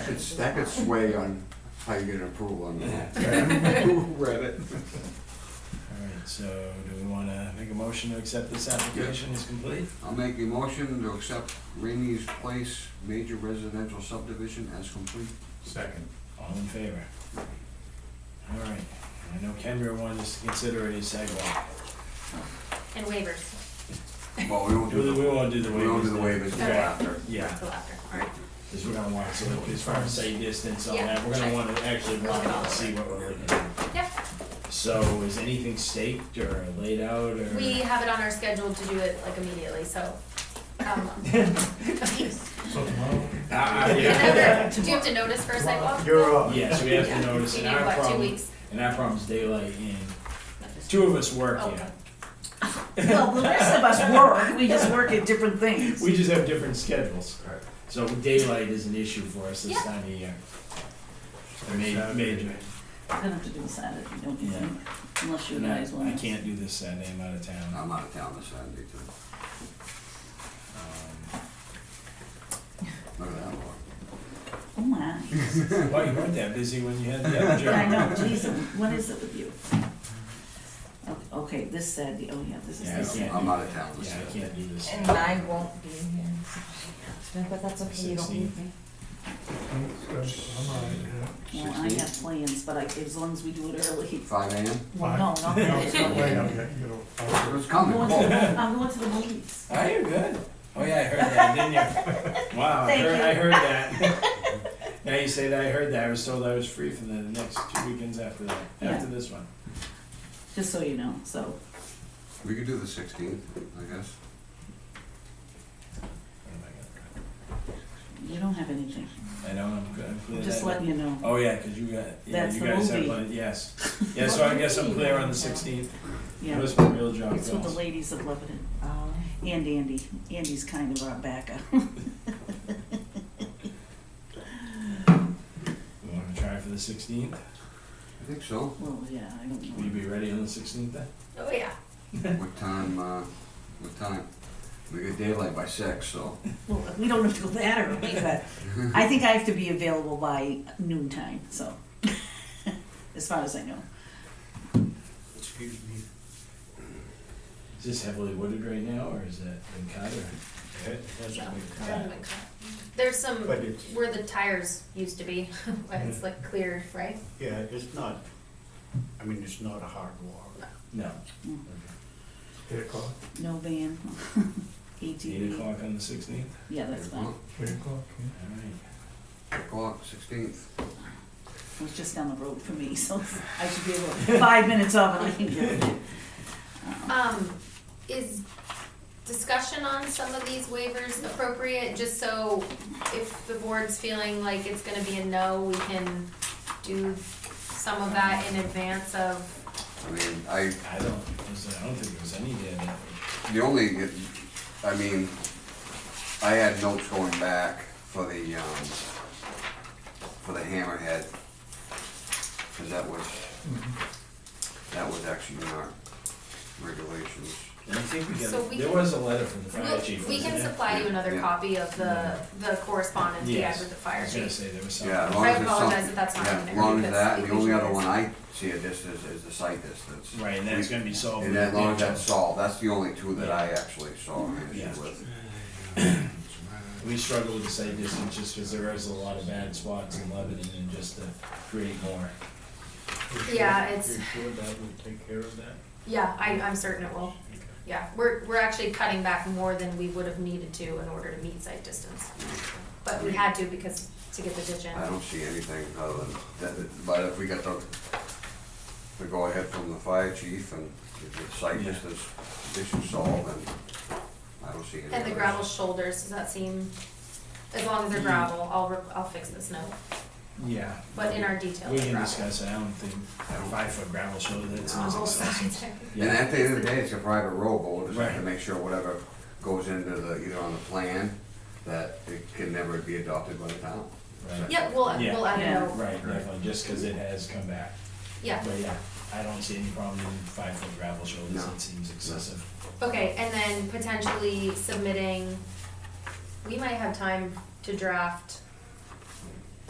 could, that could sway on how you get approval on that. Who read it? Alright, so do we wanna make a motion to accept this application as complete? I'll make a motion to accept Rainey's Place major residential subdivision as complete. Second. All in favor? Alright, I know Kendra wanted us to consider any sidewalk. And waivers Well, we won't We do the, won't do the waivers. we won't do the then. waivers until Okay. after. Yeah, until after, all right. cause we're gonna want, so as far as say distance on Yeah, that, we're gonna sure. wanna actually Look walk it all out and over. see what we're looking at. Yep, So is anything staked or laid out or? we have it on our schedule to do it like immediately, so. um, So tomorrow? Ah, yeah. Whenever- Do you have to notice for a sidewalk? You're up. Yes, we have Yeah. to notice You and need, our what, two problem, weeks? and our problem's daylight and two of us work Oh, here. Well, the rest of us work, we just work at different things. We just have different schedules. Right. So daylight is an issue for us this Yeah. time of year. Saturday. Major, major. We're gonna have to do a Saturday, don't you think? Unless you And I guys I want. can't do this Saturday, I'm out of town. I'm out of town this Saturday too. Um, Um, Look at that one. Oh my, Why, you weren't that busy when you had the other job? Yeah, I know, Jesus, what is it with you? O- Okay, this Saturday, oh yeah, this is Yeah, I can't. this Saturday. I'm out of town this Yeah, I Saturday. can't do this. And Saturday. I won't be here. But that's okay, you don't need me. I'm all right, yeah. Well, I have plans, but I, as long as we do it early. Five AM? Well, no, not No, it's not late, really. okay, you know, It I'll- was I'm coming. going Oh, to, I'm going to the movies. Oh, you're good. Oh, yeah, I heard that, didn't you? Wow, I Thank heard, you. I heard that. Now you say that, I heard that. I was told I was free for the next two weekends after that, Yeah. after this one. Just so you know, so, We could do the sixteenth, I guess. What am I you don't have anything, gonna- I know, I'm good, I'm clear just that- letting you know. Oh, yeah, 'cause you got, yeah, That's you the guys have movie. plenty, yes. Yeah, so I guess I'm clear on the sixteenth. Yeah, What's my real job, it's with the girls? ladies of Lebanon. Um, And Andy. Andy's kind of our backup. You wanna try for the sixteenth? I think so. Well, yeah, I don't Will you know. be ready on the sixteenth then? Oh, yeah. What time, uh, what time? We get daylight by six, so. Well, we don't have to go that early, but I think I have to be available by noon time, so, as far as I know. Excuse me. Is this heavily wooded right now, or is that been cut or? No, cut. I haven't cut. There's some, But it's- where the tires used to be, but it's like cleared, right? Yeah, it's not, I mean, it's not a hard wall. No. Mm. Eight o'clock, No van, Eight ATV, o'clock on the sixteenth? yeah, that's fine. eight o'clock, yeah. All right. Eight o'clock, sixteenth. It was just down the road for me, so I should be able, five minutes off and I can get it. Um, is discussion on some of these waivers appropriate, just so if the board's feeling like it's gonna be a no, we can do some of that in advance of, I mean, I, I don't, I don't think there's any dead end. the only, I mean, I had notes going back for the, um, for the hammerhead. Cause that was, that was actually in our regulations. And I think we So we got, there can- was a letter from the fire We'll- chief, we wasn't can there? supply you another Yeah. copy of the, the correspondence you had Yes. with the I fire was gonna chief. say there was something. Yeah, as long I as it's some- apologize if that's not yeah, in there, As long as because that, it the only usually other is. one I see at this is, is the site distance. Right, and that's gonna be solved. And with as long as the- that's solved, that's the only two that I actually saw an issue with. We struggle with the site distance just because there is a lot of bad spots in Lebanon and just to create more. You're sure- Yeah, it's- You're sure that would take care of that? Yeah, I, I'm certain it will, Okay. yeah, we're, we're actually cutting back more than we would have needed to in order to meet site distance. But we had to because, to get the ditch in. I don't see anything other than, that- but if we got the, the go-ahead from the fire chief and the the site Yeah. distance issue solved, then I don't see any. And the other gravel issues. shoulders, does that seem, as long Mm. as they're gravel, I'll, re- I'll fix this note, Yeah. but in our detail, We it's can gravel. discuss it, I don't think, five foot gravel shoulder, that On sounds both sides. excessive. And Yeah, at the end of the day, it's a private road, but we'll just have to Right. make sure whatever goes into the, either on the plan, that it can never be adopted by the town. Right. Yeah, we'll, Yeah. we'll add a Yeah. note, right, definitely, just because it has come back. yeah, But yeah, I don't see any problem in five foot gravel shoulders, No. it seems excessive. okay, and then potentially submitting, we might have time to draft